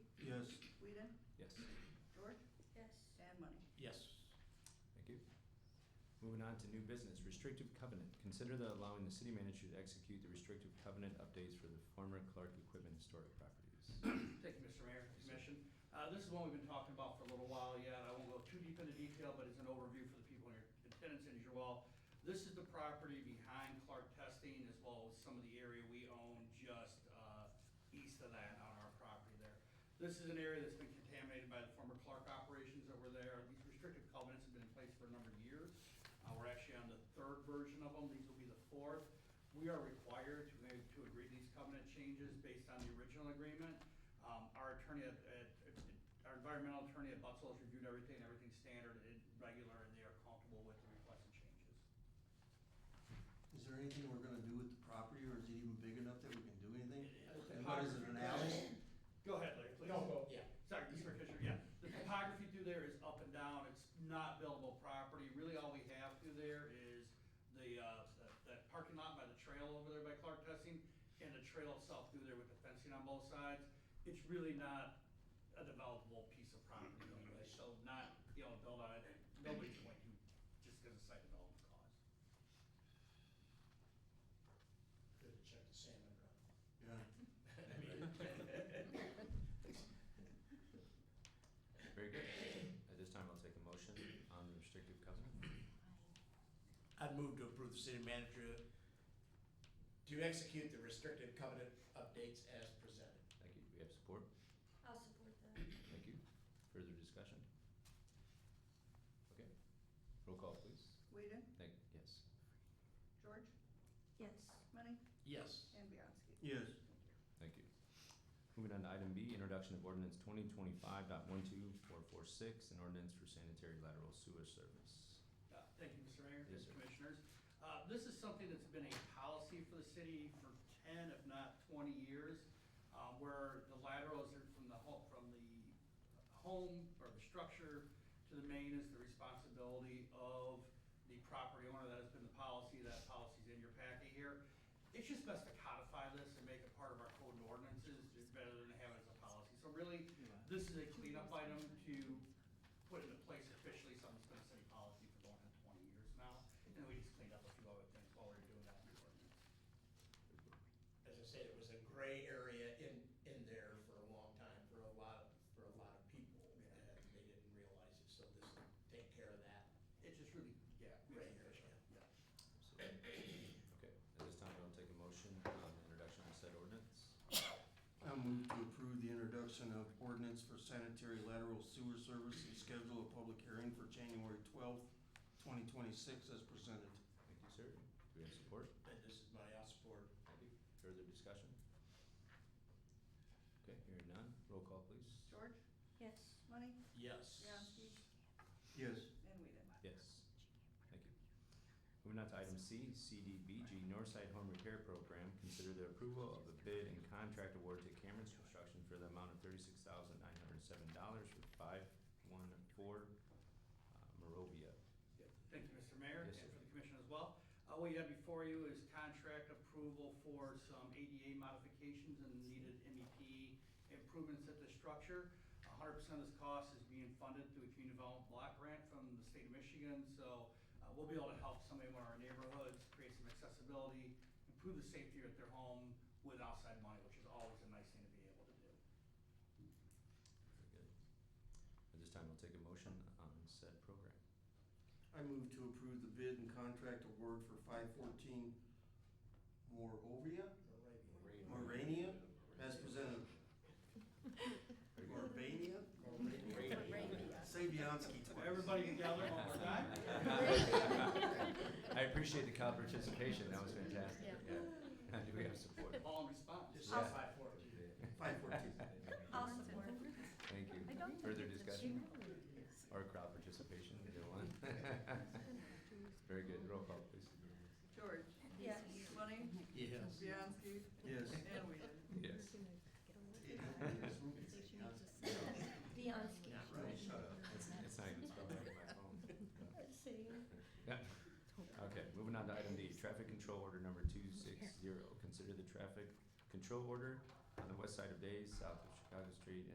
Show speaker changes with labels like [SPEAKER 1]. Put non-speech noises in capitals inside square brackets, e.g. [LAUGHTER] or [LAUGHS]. [SPEAKER 1] Moving on to new business, restrictive covenant. Consider that allowing the city manager to execute the restrictive covenant updates for the former Clark Equipment Historic Properties.
[SPEAKER 2] Thank you, Mr. Mayor, Commission. Uh, This is one we've been talking about for a little while yet. I won't go too deep into detail, but it's an overview for the people in your attendance and as you all. This is the property behind Clark Testing as well as some of the area we own just uh, east of that on our property there. This is an area that's been contaminated by the former Clark operations that were there. These restrictive covenants have been in place for a number of years. Uh, We're actually on the third version of them. These will be the fourth. We are required to make, to agree to these covenant changes based on the original agreement. Um, our attorney, at- at- our environmental attorney at Butzell has reviewed everything, everything's standard and regular, and they are comfortable with the requested changes.
[SPEAKER 3] Is there anything we're gonna do with the property, or is it even big enough that we can do anything?
[SPEAKER 2] Yeah.
[SPEAKER 3] And what is it, an alley?
[SPEAKER 2] Go ahead, Larry, please.
[SPEAKER 4] Yeah.
[SPEAKER 2] Sorry, Mr. Fisher, yeah. The topography through there is up and down, it's not buildable property. Really, all we have through there is the, uh, that- that parking lot by the trail over there by Clark Testing, and the trail itself through there with the fencing on both sides. It's really not a developable piece of property anyway, so not, you know, build on it, nobody's going to, just because of site development costs.
[SPEAKER 4] Good to check the salmon run.
[SPEAKER 3] Yeah,
[SPEAKER 4] I mean,
[SPEAKER 1] Very good. At this time, I'll take a motion on the restrictive covenant.
[SPEAKER 4] I'd move to approve the city manager to execute the restrictive covenant updates as presented.
[SPEAKER 1] Thank you. Do we have support?
[SPEAKER 5] I'll support that.
[SPEAKER 1] Thank you. Further discussion? Okay. Roll call, please.
[SPEAKER 6] Whedon,
[SPEAKER 1] Thank, yes.
[SPEAKER 6] George,
[SPEAKER 5] Yes.
[SPEAKER 6] Money,
[SPEAKER 4] Yes.
[SPEAKER 6] and Bianski.
[SPEAKER 3] yes,
[SPEAKER 6] Thank you.
[SPEAKER 1] Thank you. Moving on to item B, introduction of ordinance 2025.12446, an ordinance for sanitary lateral sewer service.
[SPEAKER 2] Uh, Thank you, Mr. Mayor.
[SPEAKER 1] Yes, sir.
[SPEAKER 2] Commissioners. Uh, This is something that's been a policy for the city for ten, if not twenty years, uh, where the laterals are from the home, from the home or the structure to the main is the responsibility of the property owner. That has been the policy. That policy's in your packet here. It's just best to codify this and make it part of our code and ordinances, it's better than to have it as a policy. So really, this is a cleanup item to put into place officially something's been a city policy for going on twenty years now, and we just cleaned up a few other things while we were doing that. in the ordinance.
[SPEAKER 4] As I said, it was a gray area in, in there for a long time, for a lot of, for a lot of people.
[SPEAKER 2] Yeah.
[SPEAKER 4] And they didn't realize it, so this will take care of that.
[SPEAKER 2] It just really, yeah. makes it
[SPEAKER 4] Right,
[SPEAKER 2] official.
[SPEAKER 4] yeah.
[SPEAKER 1] So, Okay, at this time, I'll take a motion on the introduction of said ordinance.
[SPEAKER 3] I move to approve the introduction of ordinance for sanitary lateral sewer service and schedule a public hearing for January twelfth, twenty twenty-six as presented.
[SPEAKER 1] Thank you, sir. Do we have support?
[SPEAKER 4] And this is my, i support.
[SPEAKER 1] Thank you. Further discussion? Okay, hearing none. Roll call, please.
[SPEAKER 6] George,
[SPEAKER 5] Yes.
[SPEAKER 6] Money,
[SPEAKER 4] Yes.
[SPEAKER 6] Bianski,
[SPEAKER 3] Yes,
[SPEAKER 6] and Whedon.
[SPEAKER 1] Yes. Thank you. Moving on to item C, CDBG Northside Home Repair Program. Consider the approval of the bid and contract award to Cameron's Construction for the amount of thirty-six thousand nine hundred and seven dollars for five one four uh, Morovia.
[SPEAKER 2] Yeah. Thank you, Mr. Mayor, and
[SPEAKER 1] Yes, sir.
[SPEAKER 2] for the commission as well. Uh, what you have before you is contract approval for some ADA modifications and needed MEP improvements at the structure. hundred percent of this cost is being funded through a community development block grant from the state of Michigan, so, uh, we'll be able to help somebody in one of our neighborhoods, create some accessibility, improve the safety at their home with outside money, which is always a nice thing to be able to do.
[SPEAKER 1] Very good. At this time, I'll take a motion on said program.
[SPEAKER 3] I move to approve the bid and contract award for five fourteen Morovia,
[SPEAKER 4] Moravia.
[SPEAKER 3] Morania, as presented. Moravania? Say Bianski twice. [LAUGHS]
[SPEAKER 2] Everybody together one more time?
[SPEAKER 1] [LAUGHS] I appreciate the crowd participation. That was fantastic. Yeah. Do we have support?
[SPEAKER 2] All in response?
[SPEAKER 4] This is
[SPEAKER 1] Yeah.
[SPEAKER 4] five fourteen.
[SPEAKER 3] Five fourteen.
[SPEAKER 5] I'll support. [LAUGHS]
[SPEAKER 1] Thank you. Further discussion or crowd participation, either one. [LAUGHS] Very good. Roll call, please.
[SPEAKER 6] George.
[SPEAKER 5] Yes.
[SPEAKER 6] Money,
[SPEAKER 4] Yes.
[SPEAKER 6] Bianski,
[SPEAKER 3] Yes.
[SPEAKER 6] and Whedon.
[SPEAKER 1] Yes.
[SPEAKER 5] Bianski.
[SPEAKER 4] Not
[SPEAKER 3] Right, shut up.
[SPEAKER 1] It's, it's not even spelled right on my phone.
[SPEAKER 5] See?
[SPEAKER 1] Yeah. Okay, moving on to item D, traffic control order number two six zero. Consider the traffic control order on the west side of Days, south of Chicago Street,